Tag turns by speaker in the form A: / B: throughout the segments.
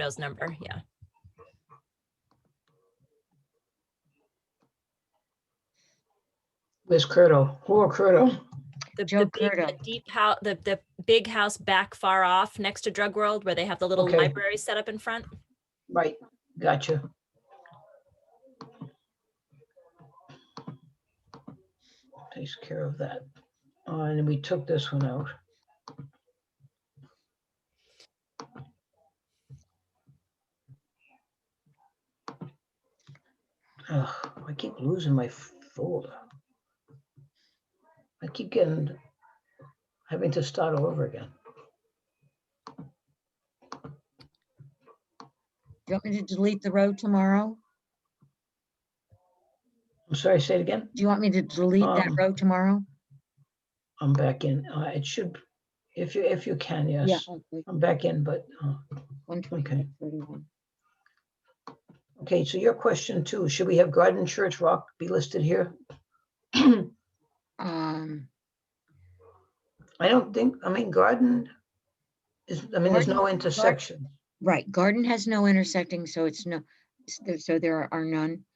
A: Joe's number, yeah.
B: Where's Curto? Poor Curto.
A: The,
C: Joe
A: the, big, the
C: Curto.
A: deep house, the, the big house back far off next to Drug World where they have the little
B: Okay.
A: library set up in front.
B: Right, gotcha. Takes care of that. Uh, And we took this one out. Ugh, I keep losing my folder. I keep getting, having to start all over again.
C: Do you want me to delete the road tomorrow?
B: I'm sorry, say it again?
C: Do you want me to delete that
B: Um,
C: road tomorrow?
B: I'm back in. Uh, it should, if you, if you can,
C: Yeah.
B: yes. I'm back in, but, uh,
C: One
B: okay.
C: twenty-five thirty-one.
B: Okay, so your question too, should we have Garden Church Rock be listed here?
C: Um,
B: I don't think, I mean, Garden is, I mean, there's
C: Garden-
B: no intersection.
C: right, garden has no intersecting, so it's no, s- there- so there are none,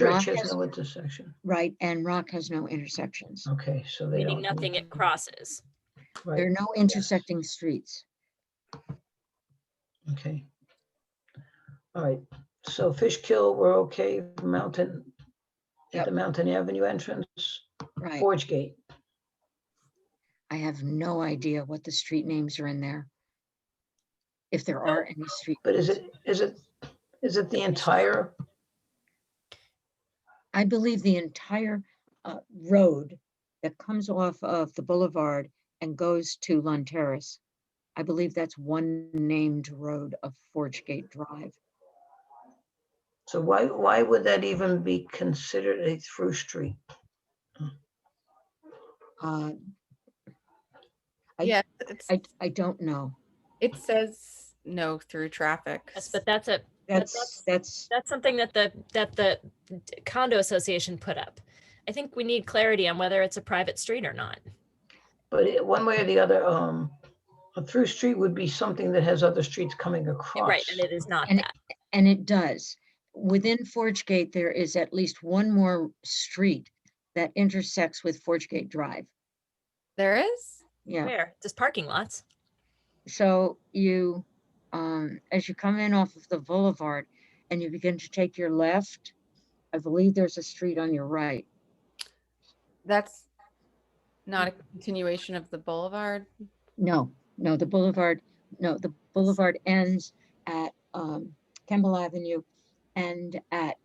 C: Rock
B: Church has
C: has-
B: no intersection.
C: right? And rock has no intersections.
B: Okay, so they
A: Meaning
B: don't. need-
A: nothing it crosses.
C: There
B: Right,
C: are no intersecting streets.
B: okay. All right, so Fishkill, we're okay, Mountain, at
C: Yep.
B: the Mountain Avenue entrance,
C: Right.
B: Forge Gate.
C: I have no idea what the street names are in there. If there are any street.
B: But is
C: names.
B: it, is it, is it the entire,
C: I believe the entire uh, road that comes off of the boulevard and goes to Lund Terrace. I believe that's one named road of Forge Gate Drive.
B: so why, why would that even be considered a through street?
C: Uh, I-
D: Yeah, it's,
C: I, I don't know.
D: it says no through traffic.
A: Yes, but that's a,
C: That's, that's,
A: that's something that the, that the condo association put up. I think we need clarity on whether it's a private street or not.
B: But it- one way or the other, um, a through street would be something that has other streets coming across.
A: Right, and it is not
C: And it-
A: that.
C: and it does. Within Forge Gate, there is at least one more street that intersects with Forge Gate Drive.
D: There is?
C: Yeah.
A: Where? Just parking lots.
C: So you, um, as you come in off of the boulevard and you begin to take your left, I believe there's a street on your right.
D: That's not a continuation of the boulevard.
C: No, no, the boulevard, no, the boulevard ends at, um, Campbell Avenue and at,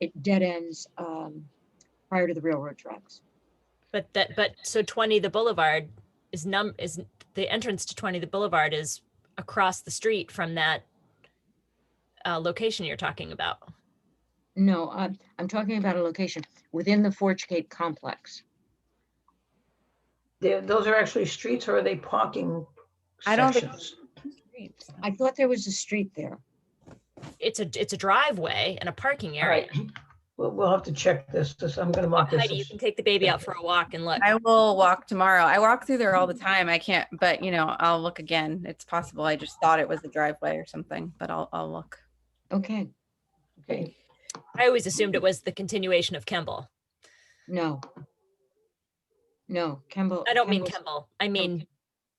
C: it dead ends, um, prior to the railroad tracks.
A: But that, but so 20, the boulevard is num, is, the entrance to 20, the boulevard is across the street from that uh, location you're talking about.
C: No, I'm, I'm talking about a location within the Forge Gate complex.
B: They're- Those are actually streets or are they parking
D: I don't think-
B: sections?
C: I thought there was a street there.
A: it's a it's a driveway and a parking
B: All
A: area.
B: right, we'll, we'll have to check this. This, I'm gonna mark this.
A: Heidi, you
B: as-
A: can take the baby out for a walk and look.
D: I will walk tomorrow. I walk through there all the time. I can't, but you know, I'll look again. It's possible. I just thought it was a driveway or something, but I'll, I'll look.
C: Okay,
B: Okay,
A: I always assumed it was the continuation of Kemble.
C: no. No, Campbell.
A: I don't mean
C: Kemble's-
A: Kemble. I mean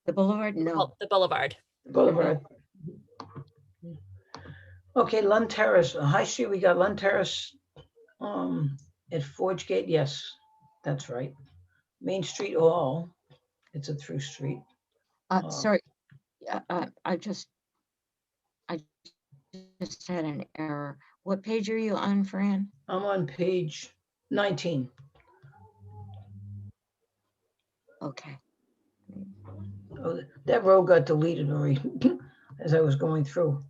C: The boulevard, no.
A: Bul- the Boulevard.
B: Boulevard. Okay, Lund Terrace, uh, High Street, we got Lund Terrace, um, at Forge Gate, yes, that's right. Main Street all, it's a through street.
C: Uh,
B: Oh.
C: sorry, uh, uh, I just, I just had an error. What page are you on, Fran?
B: I'm on page nineteen.
C: Okay,
B: Oh, th- that row got deleted already as I was going through.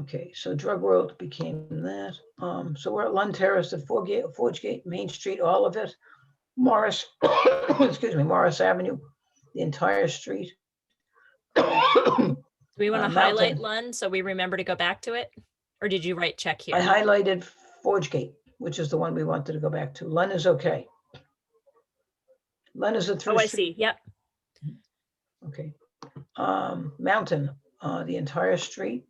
B: Okay, so Drug World became that. Um, so we're at Lund Terrace at Forge Gate, Forge Gate, Main Street, all of it. Morris, excuse me, Morris Avenue, the entire street. I
A: Do we want
B: Uh,
A: to highlight
B: Mountain.
A: Lund so we remember to go back to it? Or did you write check here?
B: highlighted Forge Gate, which is the one we wanted to go back to. Lund is okay. Lund is a
A: oh,
B: through
A: I
B: street.
A: see. Yep.
B: Okay. Um, Mountain, uh, the entire street.